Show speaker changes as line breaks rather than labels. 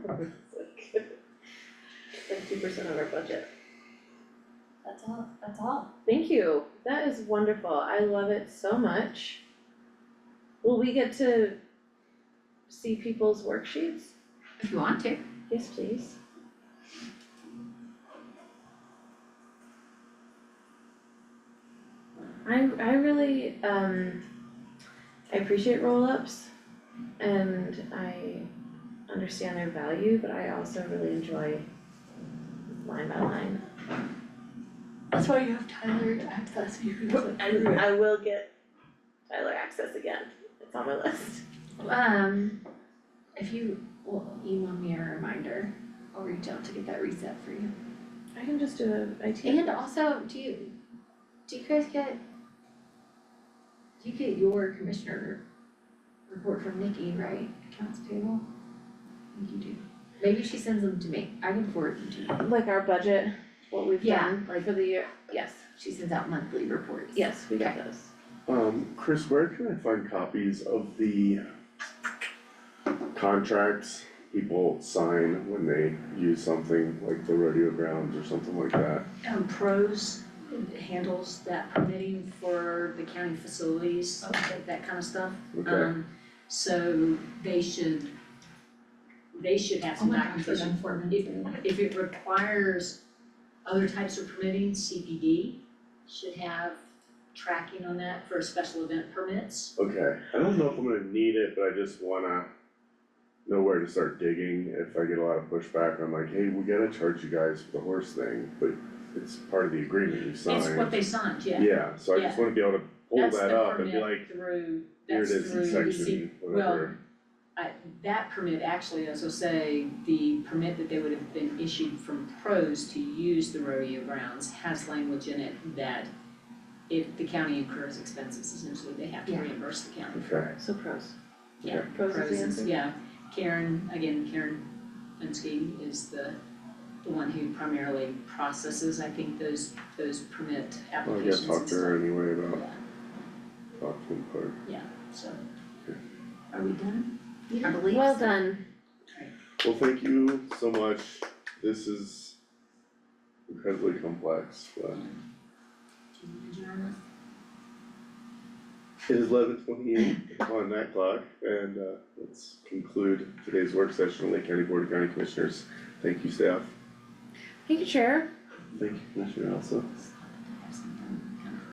two percent of our budget.
That's all, that's all.
Thank you, that is wonderful, I love it so much. Will we get to see people's worksheets?
If you want to.
Yes, please. I I really um I appreciate roll-ups and I understand their value, but I also really enjoy line by line.
That's why you have Tyler access you.
And I will get Tyler access again, it's on my list.
Um, if you will email me a reminder, I'll reach out to get that reset for you.
I can just do a IT.
And also, do you, do you guys get, do you get your commissioner report from Nikki, right? Accounts payable? I think you do. Maybe she sends them to me. I can forward them to you.
Like our budget, what we've
Yeah,
done
like-
for the year, yes,
She sends out monthly reports.
yes, we got those.
Um, Chris, where can I find copies of the contracts people sign when they use something like the rodeo grounds or something like that?
Um, pros handles that permitting for the county facilities, that, that kind of stuff.
Okay,
Um, so they should, they should have
Oh
some
my gosh, we're
documentation
done
for
four
it.
minutes. already.
If, if it requires other types of permitting, CPD should have tracking on that for special event permits.
okay. I don't know if I'm gonna need it, but I just wanna know where to start digging if I get a lot of pushback. I'm like, hey, we gotta charge you guys for the horse thing, but it's part of the agreement you signed.
It's what they signed, yeah.
Yeah, so I just wanna be able to pull
That's the
that up and be
permit
like,
through,
here
that's
it is in
through the C
section,
well,
whatever.
I, that permit actually, as I say, the permit that they would have been issued from pros to use the rodeo grounds has language in it that if the county incurs expenses, essentially they have to
Yeah.
reimburse the county.
Okay,
So pros.
Yeah,
Pros is
Pros
the
is-
answer.
yeah, Karen, again, Karen Fenske is the, the one who primarily processes, I think, those, those permit
Well, I
applications
guess
and
talk to her anyway about
stuff.
Auckland Park.
Yeah, so,
Okay.
are we done?
I believe
Well
so.
done.
Well, thank you so much. This is incredibly complex, but
Do you wanna adjourn us?
it is eleven twenty-eight on that clock, and uh, let's conclude today's work session on Lake County Board of County Commissioners. Thank you, staff.
Thank you, Chair.
Thank you, Commissioner Elsa.